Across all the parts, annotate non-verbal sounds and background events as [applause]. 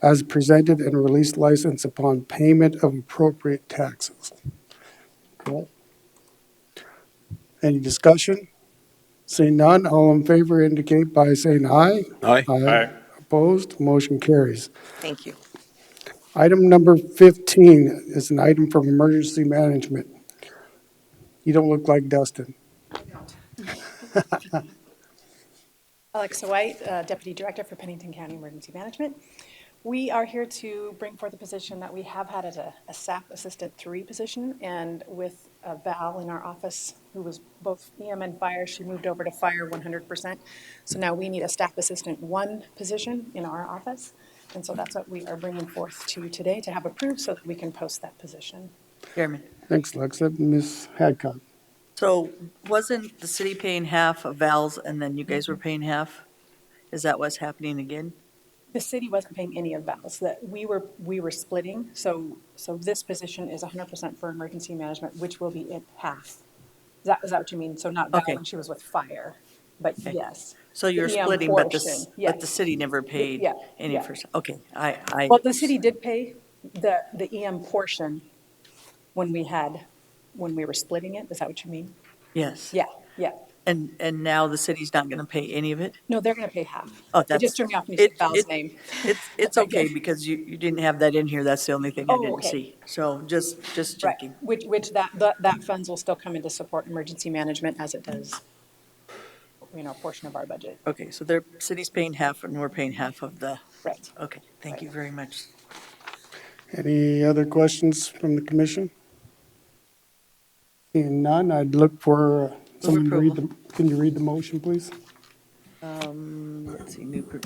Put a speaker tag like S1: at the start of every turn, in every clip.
S1: as presented and release license upon payment of appropriate taxes. Okay. Any discussion? Seeing none, all in favor indicate by saying aye.
S2: Aye.
S1: Aye. Opposed, motion carries.
S3: Thank you.
S1: Item number 15 is an item from emergency management. You don't look like Dustin.
S4: [laughs] Alexa White, uh, Deputy Director for Pennington County Emergency Management. We are here to bring forth a position that we have had as a a SAP Assistant 3 position, and with uh, Val in our office, who was both EM and Fire, she moved over to Fire 100%. So now we need a Staff Assistant 1 position in our office, and so that's what we are bringing forth to you today to have approved so that we can post that position.
S5: Chairman.
S1: Thanks, Lexa. Ms. Hadcock.
S5: So wasn't the city paying half of Val's and then you guys were paying half? Is that what's happening again?
S4: The city wasn't paying any of Val's, that we were, we were splitting, so, so this position is hundred percent for emergency management, which will be at half. Is that, is that what you mean? So not Val
S5: Okay.
S4: when she was with fire, but yes.
S5: So you're
S4: The EM
S5: splitting, but the, s-
S4: portion,
S5: but the
S4: yes.
S5: city never paid
S4: yeah,
S5: any
S4: yeah.
S5: first, okay, I, I.
S4: Well, the city did pay the, the EM portion when we had, when we were splitting it, is that what you mean?
S5: Yes.
S4: Yeah, yeah.
S5: And, and now the city's not gonna pay any of it?
S4: No, they're gonna pay half.
S5: Oh,
S4: It
S5: that's-
S4: just threw me off when you said
S5: it-
S4: Val's
S5: it-
S4: name.
S5: It's, it's okay
S4: [laughs]
S5: because you, you didn't have that in here. That's the only thing I
S4: Oh,
S5: didn't
S4: okay.
S5: see. So just, just
S4: Right,
S5: checking.
S4: which, which that, that, that funds will still come in to support emergency management as it does, you know, a portion of our budget.
S5: Okay, so their city's paying half and we're paying half of the,
S4: Right.
S5: okay, thank you very much.
S1: Any other questions from the commission? Seeing none, I'd look for, uh, someone to read the, can you read the motion, please?
S5: Um, Let's see, new. pro-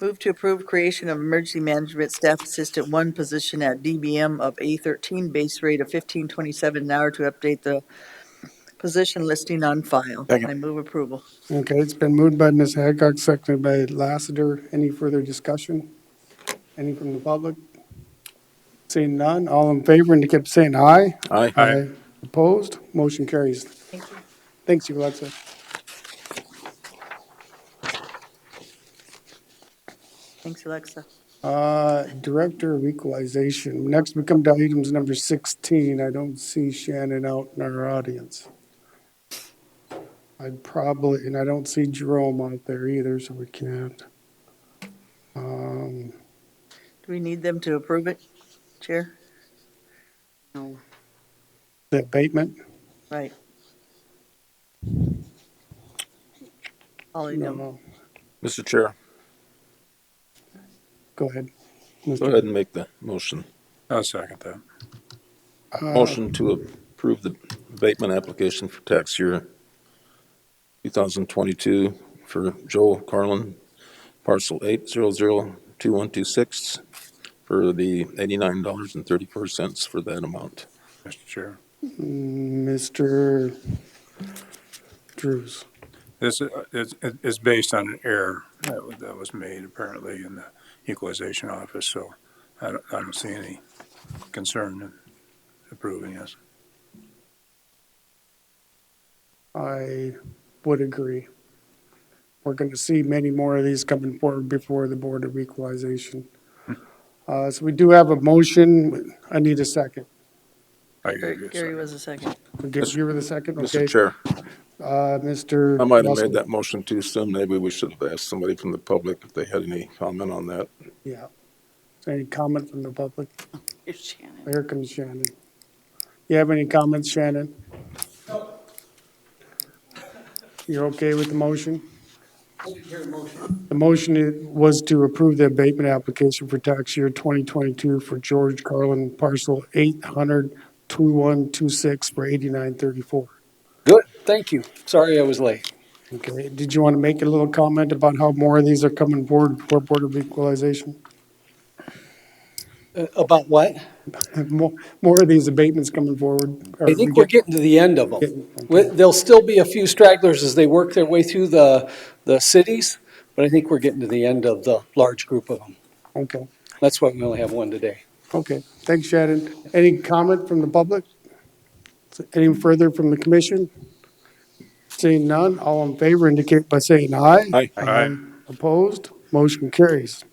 S5: Move to approve creation of emergency management staff assistant one position at DBM of A thirteen base rate of fifteen twenty-seven an hour to update the position listing on file.
S2: Second.
S5: I move approval.
S1: Okay, it's been moved by Ms. Hadcock, seconded by Lassiter. Any further discussion? Any from the public? Seeing none, all in favor indicate by saying aye.
S2: Aye.
S1: Opposed, motion carries.
S4: Thank you.
S1: Thanks, you, Alexa.
S5: Thanks, Alexa.
S1: Uh, Director of Equalization. Next, we come to items number 16. I don't see Shannon out in our audience. I'd probably, and I don't see Jerome out there either, so we can't. Um,
S5: Do we need them to approve it, Chair?
S1: The abatement?
S5: Right. Holly,
S1: No,
S5: no.
S1: no.
S2: Mr. Chair,
S1: Go ahead.
S2: go
S1: Mr.
S2: ahead and make the motion.
S6: I'll second that.
S2: Motion to approve the abatement application for tax year 2022 for Joel Carlin, parcel 8002126, for the $89.34 for that amount.
S6: Mr. Chair.
S1: Mr. Drews.
S6: This is, it's, it's based on an error that was, that was made apparently in the equalization office, so I don't, I don't see any concern in approving this.
S1: I would agree. We're going to see many more of these coming forward before the Board of Equalization. Uh, So we do have a motion. I need a second.
S6: I agree
S5: Gary
S6: with
S5: Gary
S6: you.
S5: was a second.
S1: We give you the second, okay?
S2: Mr. Chair,
S1: Uh, Mr.
S2: I might have
S1: Russell.
S2: made that motion too soon. Maybe we should have asked somebody from the public if they had any comment on that.
S1: Yeah. Any comment from the public? Here comes Shannon. You have any comments, Shannon? You're okay with the motion? The motion i- was to approve the abatement application for tax year 2022 for George Carlin parcel 800-2126 for 8934.
S7: Good, thank you. Sorry I was late.
S1: Okay, did you want to make a little comment about how more of these are coming forward for Board of Equalization?
S7: Uh, About what?
S1: More, more of these abatements coming forward? or
S7: I think we're
S1: get-
S7: getting to the end of them. We- There'll still be a few stragglers as they work their way through the, the cities, but I think we're getting to the end of the large group of them.
S1: Okay,
S7: That's why we only have one today.
S1: okay. Thanks, Shannon. Any comment from the public? Any further from the commission? Seeing none, all in favor indicate by saying aye.
S2: Aye.
S6: Aye.
S1: Opposed? Motion carries.